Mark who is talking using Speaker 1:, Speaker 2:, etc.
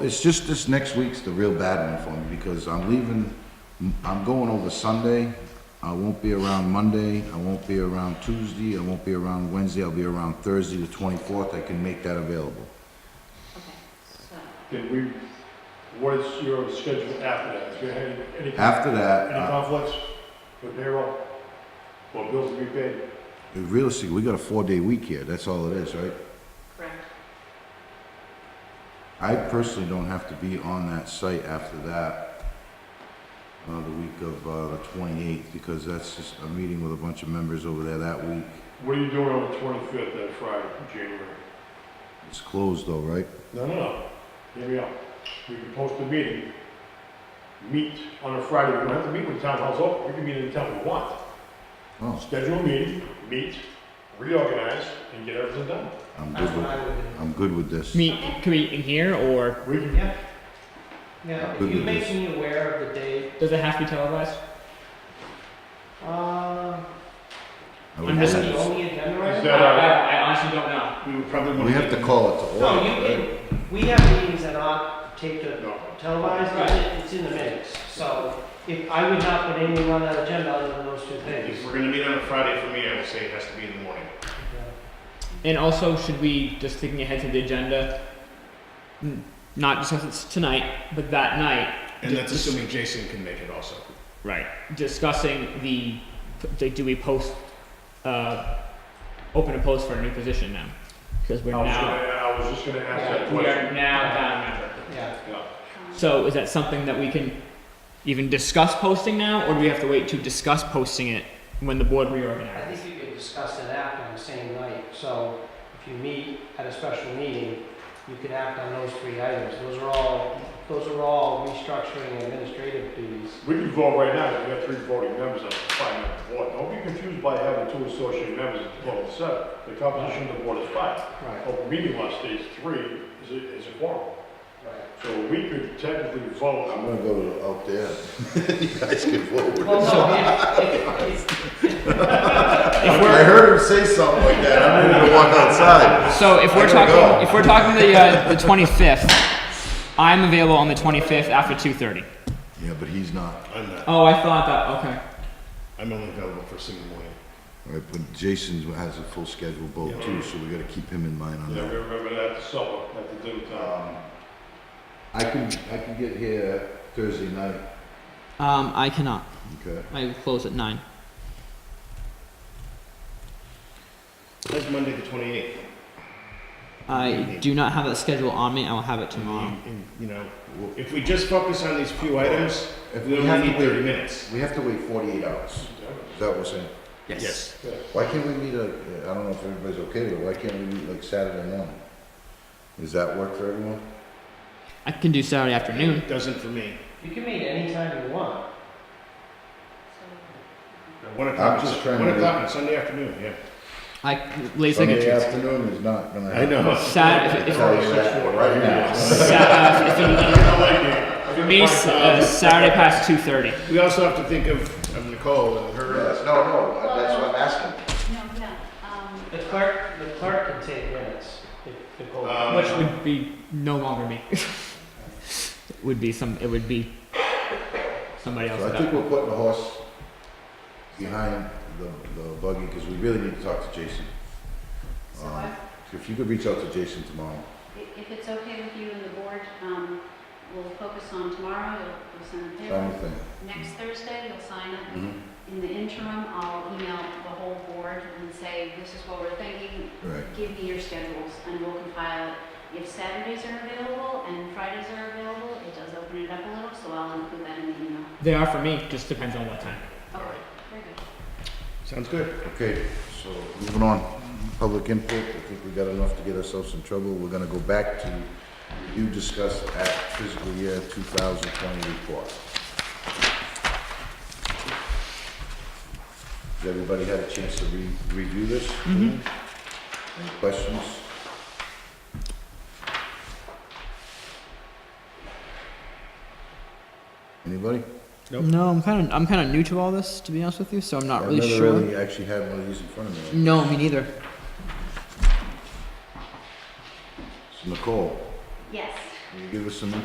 Speaker 1: It's just this next week's the real bad one for me because I'm leaving, I'm going over Sunday. I won't be around Monday, I won't be around Tuesday, I won't be around Wednesday, I'll be around Thursday the twenty-fourth. I can make that available.
Speaker 2: Okay, so,
Speaker 3: Did we, what is your schedule after that? Do you have any, any
Speaker 1: After that, uh,
Speaker 3: conflicts with payroll? Or bills to be paid?
Speaker 1: realistically, we got a four-day week here. That's all it is, right?
Speaker 2: correct.
Speaker 1: I personally don't have to be on that site after that, uh, the week of, uh, the twenty-eighth, because that's just, a meeting with a bunch of members over there that week.
Speaker 3: What are you doing on the twenty-fifth, that Friday, January?
Speaker 1: It's closed though, right?
Speaker 3: No, no, no, hear me out. We can post a meeting, meet on a Friday, we don't have to meet when the town hall's open, we can meet anytime we want.
Speaker 1: Oh,
Speaker 3: Schedule a meeting, meet, reorganize, and get everything done.
Speaker 1: I'm
Speaker 4: That's
Speaker 1: good with,
Speaker 4: what I would do.
Speaker 1: I'm good with this.
Speaker 5: Meet, can we meet in here, or
Speaker 3: We can,
Speaker 4: Yeah. Now, if
Speaker 1: Good
Speaker 4: you
Speaker 1: with
Speaker 4: make
Speaker 1: this.
Speaker 4: me aware of the date,
Speaker 5: does it have to be televised?
Speaker 4: uh,
Speaker 1: I would
Speaker 5: I'm
Speaker 4: is
Speaker 5: just-
Speaker 1: do
Speaker 4: it
Speaker 1: this.
Speaker 4: only in
Speaker 3: Is
Speaker 4: January?
Speaker 3: that-
Speaker 5: I, I honestly don't know.
Speaker 3: we would probably
Speaker 1: We have to call it to order,
Speaker 4: No, you
Speaker 1: right?
Speaker 4: can, we have meetings that aren't taped or
Speaker 3: No.
Speaker 4: televised,
Speaker 5: Right.
Speaker 4: and it's in the minutes. So if, I would not put anything on that agenda other than those two
Speaker 6: If
Speaker 4: things.
Speaker 6: we're gonna meet on a Friday for me, I would say it has to be in the morning.
Speaker 5: And also, should we just thinking ahead to the agenda, n- not discuss it tonight, but that night,
Speaker 6: And that's assuming Jason can make it also.
Speaker 5: right? Discussing the, the do we post, uh, open a post for a new position now? Because we're
Speaker 3: I was
Speaker 5: now,
Speaker 3: gonna, I was just gonna ask that
Speaker 5: Oh, we
Speaker 3: question.
Speaker 5: are now down a member.
Speaker 4: Yeah.
Speaker 3: Yeah.
Speaker 5: So is that something that we can even discuss posting now, or do we have to wait to discuss posting it when the board
Speaker 4: I
Speaker 5: reorganizes?
Speaker 4: think you could discuss it after on the same night, so if you meet at a special meeting, you can act on those three items. Those are all, those are all restructuring and administrative duties.
Speaker 3: We can vote right now, we have three voting members on the five-member board. Don't be confused by having two associate members at the total of seven. The composition of the board is five.
Speaker 4: Right.
Speaker 3: Open meeting law states three is a, is a quorum.
Speaker 4: Right.
Speaker 3: So we could technically
Speaker 1: I'm
Speaker 3: vote,
Speaker 1: gonna go to out there. You guys can forward.
Speaker 4: Well, no, if, if, if,
Speaker 5: If
Speaker 1: I
Speaker 5: we're,
Speaker 1: heard him say something like that. I'm gonna walk outside.
Speaker 5: so if we're
Speaker 1: I gotta go.
Speaker 5: talking, if we're talking the, uh, the twenty-fifth, I'm available on the twenty-fifth after two thirty.
Speaker 1: Yeah, but he's not.
Speaker 6: I'm not,
Speaker 5: Oh, I thought that, okay.
Speaker 6: I'm only available for single morning.
Speaker 1: All right, but Jason has a full schedule both too, so we gotta keep him in mind on
Speaker 3: yeah, we
Speaker 1: that.
Speaker 3: remember that at supper, at the dinner time.
Speaker 1: Um, I can, I can get here Thursday night,
Speaker 5: Um, I cannot.
Speaker 1: okay?
Speaker 5: I close at nine.
Speaker 6: That's Monday the twenty-eighth.
Speaker 5: I do not have that schedule on me. I will have it tomorrow.
Speaker 6: You know, if we just focus on these few items,
Speaker 1: If
Speaker 6: we
Speaker 1: we have
Speaker 6: only need
Speaker 1: to wait-
Speaker 6: thirty minutes.
Speaker 1: We have to wait forty-eight hours. Is that what we're saying?
Speaker 6: Yes.
Speaker 1: Why can't we meet, like, I don't know if everybody's okay with it, why can't we meet like Saturday morning? Does that work for everyone?
Speaker 5: I can do Saturday afternoon.
Speaker 6: Doesn't for me.
Speaker 4: you can meet anytime you want.
Speaker 6: One o'clock,
Speaker 1: just
Speaker 6: on-
Speaker 1: trying to
Speaker 6: one
Speaker 1: be-
Speaker 6: o'clock on Sunday afternoon, yeah.
Speaker 5: I late
Speaker 1: Sunday
Speaker 5: second.
Speaker 1: afternoon is not gonna
Speaker 6: I
Speaker 1: happen.
Speaker 6: know.
Speaker 5: Sat- if- if-
Speaker 1: Tell you that right now.
Speaker 5: Sa- uh, if it-
Speaker 3: For
Speaker 5: For me, s- uh, Saturday past two thirty.
Speaker 6: We also have to think of, of Nicole and her.
Speaker 1: Yes, No, no, that's what I'm asking.
Speaker 2: No, no, um,
Speaker 4: The clerk, the clerk can take minutes if Nicole.
Speaker 6: Um,
Speaker 5: Which would be no longer me. it would be some. It would be somebody else.
Speaker 1: So I
Speaker 5: at
Speaker 1: think
Speaker 5: that
Speaker 1: we're putting the horse behind the, the buggy, cause we really need to talk to Jason.
Speaker 2: so
Speaker 1: Um,
Speaker 2: I,
Speaker 1: If you could reach out to Jason tomorrow.
Speaker 2: i- if it's okay with you and the board, um, we'll focus on tomorrow, you'll, you'll send a
Speaker 1: Tell me the
Speaker 2: paper.
Speaker 1: thing.
Speaker 2: Next Thursday, you'll sign it.
Speaker 1: Mhm.
Speaker 2: In the interim, I'll email the whole board and say, this is what we're thinking,
Speaker 1: Right.
Speaker 2: give me your schedules, and we'll compile it. If Saturdays are available and Fridays are available, it does open it up a little, so I'll include that in the email.
Speaker 5: They are for me. Just depends on what time.
Speaker 2: Okay,
Speaker 6: Alright.
Speaker 2: very good.
Speaker 6: Sounds good.
Speaker 1: Okay, so moving on, public input, I think we got enough to get ourselves in trouble. We're gonna go back to, you discussed at fiscal year 2020 report. Has everybody had a chance to re- review this?
Speaker 6: Mm-hmm.
Speaker 1: Any questions? Anybody?
Speaker 6: Nope.
Speaker 5: No, I'm kind of. I'm kind of new to all this, to be honest with you. So I'm not really
Speaker 1: I've
Speaker 5: sure.
Speaker 1: never really actually had one of these in front of me.
Speaker 5: No, me neither.
Speaker 1: So Nicole,
Speaker 2: Yes,
Speaker 1: Can you give us some